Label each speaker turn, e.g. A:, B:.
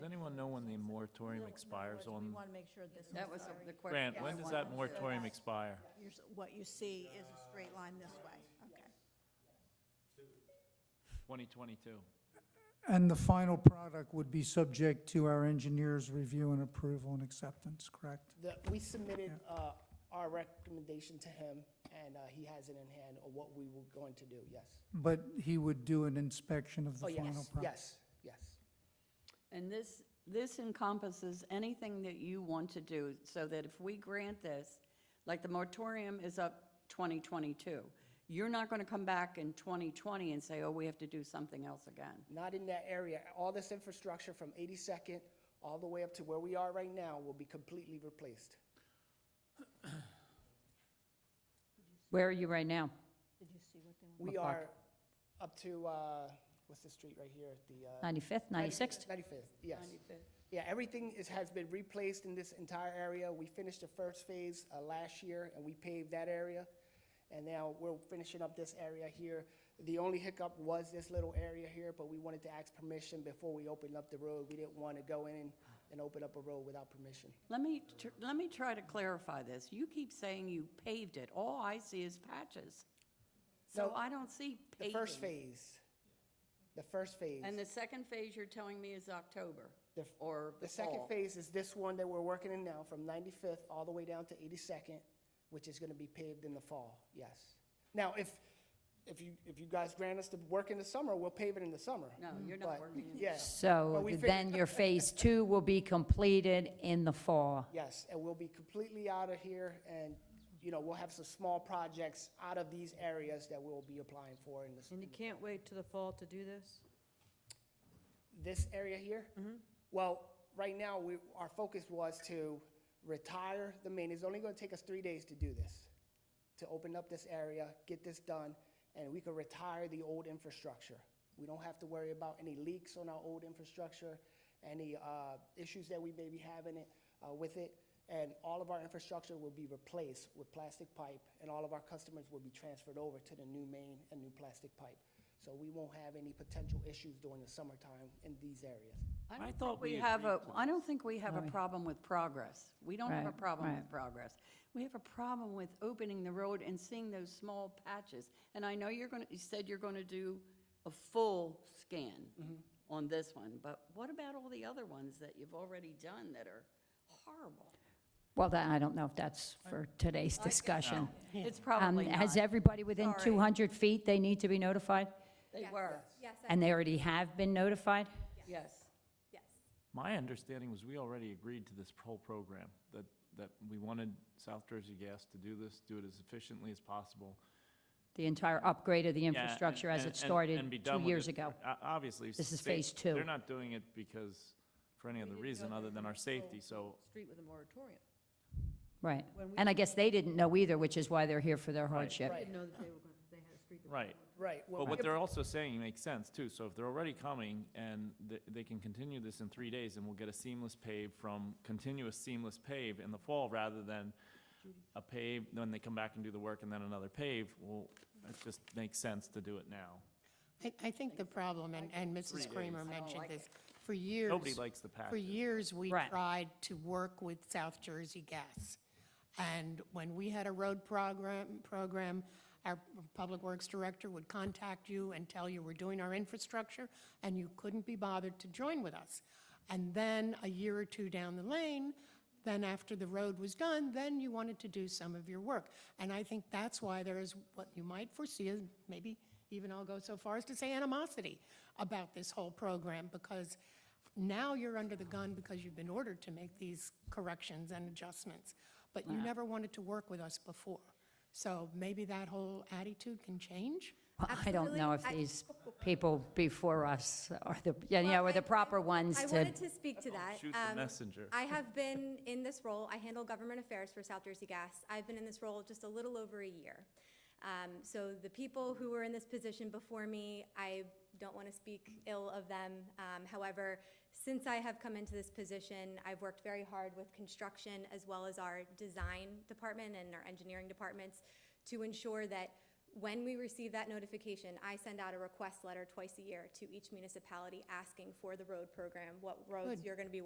A: know when the moratorium expires
B: We
A: on?
B: want to make sure this is.
C: That was
B: already-
C: the question.
A: Grant,
C: I
A: when does
C: wanted.
A: that moratorium expire?
B: you're s- What you see is a straight line this way, okay.
A: 2022.
D: And the final product would be subject to our engineer's review and approval and acceptance, correct?
E: The, we submitted, uh, our recommendation to him, and, uh, he has it in hand of what we were going to do, yes.
D: But he would do an inspection of
E: Oh,
D: the final
E: yes,
D: product?
E: yes, yes.
C: And this, this encompasses anything that you want to do, so that if we grant this, like the moratorium is up 2022, you're not going to come back in 2020 and say, oh, we have to do something else again.
E: Not in that area. All this infrastructure from 82nd all the way up to where we are right now will be completely replaced.
F: Where are you right now?
E: We are up to, uh, what's the street right here, the? uh,
F: 95th, 96th?
E: 95th, yes. Yeah, everything is, has been replaced in this entire area. We finished the first phase uh, last year, and we paved that area. And now we're finishing up this area here. The only hiccup was this little area here, but we wanted to ask permission before we opened up the road. We didn't want to go in and open up a road without permission.
C: Let me, tr- let me try to clarify this. You keep saying you paved it. All I see is patches. So
E: No,
C: I don't see
E: The first
C: paving.
E: phase, the first phase.
C: And the second phase you're telling me is October
E: The f-
C: or the
E: The second
C: fall.
E: phase is this one that we're working in now, from 95th all the way down to 82nd, which is going to be paved in the fall, yes. Now, if, if you, if you guys grant us to work in the summer, we'll pave it in the summer.
C: No, you're not
E: But,
C: working in the
E: yeah, but
F: So
E: we fig-
F: then your phase two will be completed in the fall.
E: Yes, and we'll be completely out of here, and, you know, we'll have some small projects out of these areas that we'll be applying for in this,
G: And you can't wait to the fall to do this?
E: this area here.
C: Mm-hmm.
E: Well, right now, we, our focus was to retire the main, it's only going to take us three days to do this. to open up this area, get this done, and we could retire the old infrastructure. We don't have to worry about any leaks on our old infrastructure, any uh, issues that we may be having it, uh, with it. And all of our infrastructure will be replaced with plastic pipe, and all of our customers will be transferred over to the new main and new plastic pipe. So we won't have any potential issues during the summertime in these areas.
C: I
A: I
C: don't
A: thought
C: think we
A: we
C: have
A: agreed
C: a, I don't think we have a problem with progress. We don't have a
F: Right,
C: problem with
F: right.
C: progress. We have a problem with opening the road and seeing those small patches. And I know you're going to, you said you're going to do a full scan
A: Mm-hmm.
C: on this one, but what about all the other ones that you've already done that are horrible?
F: Well, that, I don't know if that's for today's discussion.
C: It's
F: Um,
C: probably
F: Has
C: not.
F: everybody within
C: Sorry.
F: 200 feet, they need to be notified?
C: They were,
H: Yes, I-
F: And they already have been notified?
C: yes.
H: yes.
A: My understanding was we already agreed to this whole program, that, that we wanted South Jersey Gas to do this, do it as efficiently as possible.
F: The entire upgrade of the
A: Yeah, and-
F: infrastructure as
A: and-
F: it
A: and- and be
F: started
A: done
F: two
A: with
F: years
A: it.
F: ago?
A: O- Obviously.
F: This is
A: sa-
F: phase two.
A: They're not doing it because, for any other reason other than our safety, so
G: Street with a moratorium.
F: Right.
G: When we-
F: And I guess they didn't know either, which is why they're here for their hardship.
G: I didn't know that they were going, to they had a street. with a
A: Right.
E: Right. well,
A: But
E: we
A: what
E: could-
A: they're also saying makes sense too. So if they're already coming and th- they can continue this in three days and we'll get a seamless pave from continuous seamless pave in the fall rather than a pave, when they come back and do the work and then another pave, well, it just makes sense to do it now.
I: I, I think the problem, and, and Mrs. Kramer mentioned this, for years.
A: Nobody likes the patches.
I: For years, we
F: Right.
I: tried to work with South Jersey Gas. And when we had a road program, program, our Public Works Director would contact you and tell you we're doing our infrastructure, and you couldn't be bothered to join with us. And then, a year or two down the lane, then after the road was done, then you wanted to do some of your work. And I think that's why there is what you might foresee, is maybe even I'll go so far as to say animosity about this whole program, because now you're under the gun because you've been ordered to make these corrections and adjustments, but you never wanted to work with us before. So maybe that whole attitude can change?
F: Well, I don't know if
H: Absolutely. I-
F: these people before us are the, you know, are the proper ones
H: I
F: to
H: wanted to speak to that.
A: Oh, shoot the
H: Um,
A: messenger.
H: I have been in this role, I handle government affairs for South Jersey Gas. I've been in this role just a little over a year. Um, So the people who were in this position before me, I don't want to speak ill of them. Um, However, since I have come into this position, I've worked very hard with construction as well as our design department and our engineering departments to ensure that When we receive that notification, I send out a request letter twice a year to each municipality asking for the road program, what roads you're gonna be